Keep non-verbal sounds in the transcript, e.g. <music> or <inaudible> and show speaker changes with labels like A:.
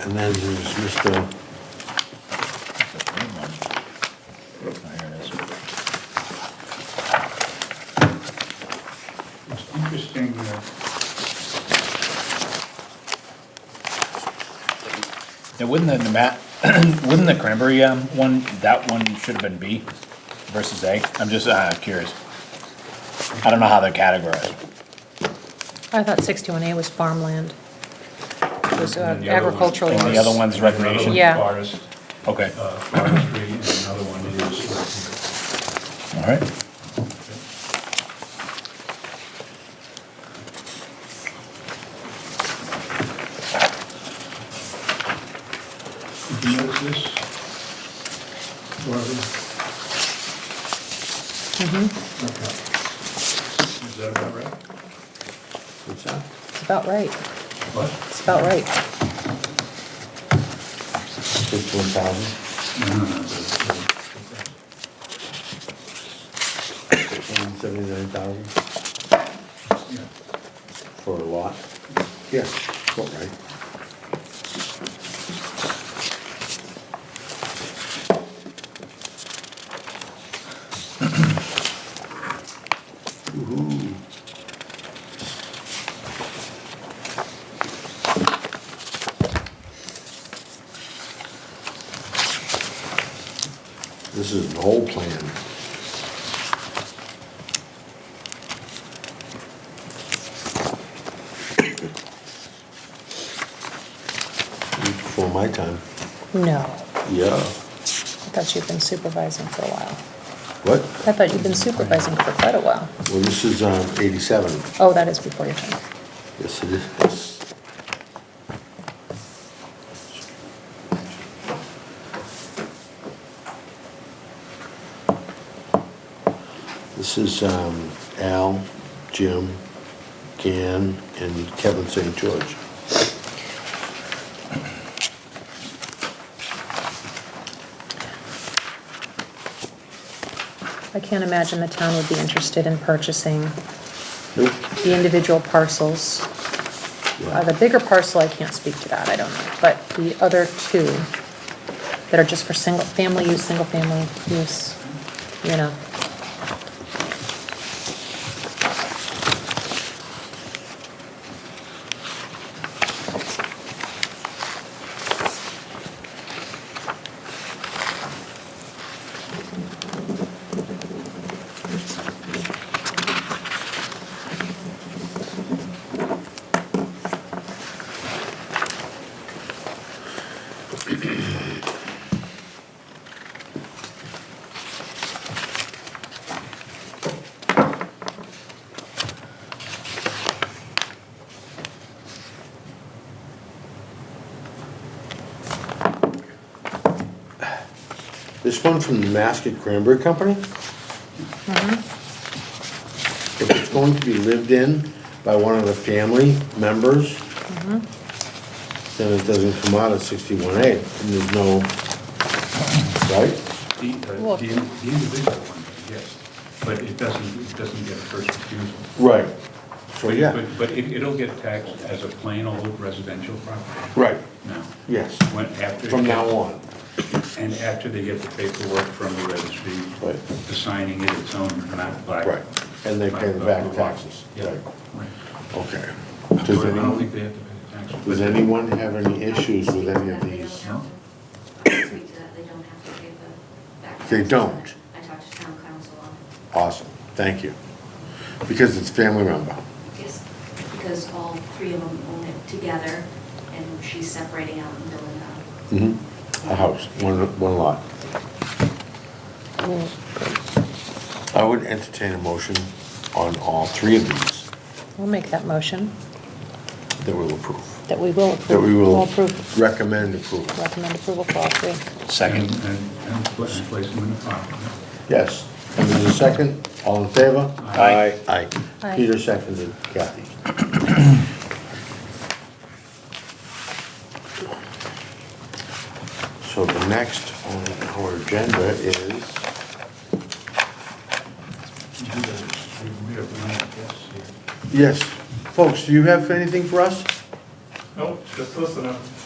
A: And then there's Mr.
B: It's interesting that
C: Now, wouldn't the, Nemat- <clears throat> wouldn't the cranberry um, one, that one should have been B versus A? I'm just uh, curious. I don't know how they're categorized.
D: I thought sixty-one A was farmland. It was uh,
B: And the other one-
D: agricultural.
C: And the
D: use.
C: other one's recreation?
D: Yeah.
B: forest,
C: Okay,
B: uh, forestry, and another one is,
C: all right.
B: who knows this? Barbara? Okay. Is that about right?
A: What's that?
D: It's about right.
B: What?
D: It's about right.
A: Fifteen thousand.
B: No, no, no, that's, uh,
A: Seventy-nine thousand
B: yeah.
A: for a lot? Yeah, about right. Woo-hoo. This is an old plan. Before my time.
D: No,
A: Yeah.
D: I thought you've been supervising for a while.
A: What?
D: I thought you've been supervising for quite a while.
A: Well, this is um, 87.
D: Oh, that is before your time.
A: Yes, it is. This is um, Al, Jim, Gan, and Kevin St. George.
D: I can't imagine the town would be interested in purchasing
A: Nope.
D: the individual parcels. Uh, The bigger parcel, I can't speak to that, I don't know, but the other two that are just for single, family use, single family use, you know.
A: This one from the Mascot Cranberry Company? If it's going to be lived in by one of the family members, then it doesn't come out at sixty-one A, and there's no, right?
B: The, uh,
D: Look.
B: the in- the individual one, yes, but it doesn't, it doesn't get a first refusal.
A: Right. So, yeah,
B: But, but it- it'll get taxed as a plain old residential property
A: right,
B: now.
A: yes,
B: When, after.
A: from now on,
B: And after they get the paperwork from the registry.
A: Right.
B: Assigning it its own, not by.
A: right, and they pay the back taxes,
B: Yeah.
A: right,
B: Right.
A: okay.
B: I
A: Does
B: don't
A: anyone,
B: think they have to pay the taxes.
A: does
B: but-
A: anyone have any issues with any of these?
B: No.
E: Speak to that, they don't have to pay the back.
A: They
E: taxes on it.
A: don't.
E: I talked to town council on it.
A: Awesome, thank you, because it's family member,
E: Yes, because all three of them own it together, and she's separating out and building out.
A: Mhm. a house, one, one lot. I would entertain a motion on all three of these
D: We'll make that motion
A: that we'll approve,
D: that we will
A: that we
D: approve, will
A: will
D: approve,
A: recommend approval.
D: recommend approval for all three.
C: Second.
B: And, and- and pla- and place them in the property.
A: Yes. And there's a second, all in favor?
C: Aye.
A: Aye.
D: Aye.
A: Peter seconded Kathy. <clears throat> So the next on our agenda is,
B: You do that, we- we have none of this here.
A: yes, folks, do you have anything for us?
F: Nope, just listening.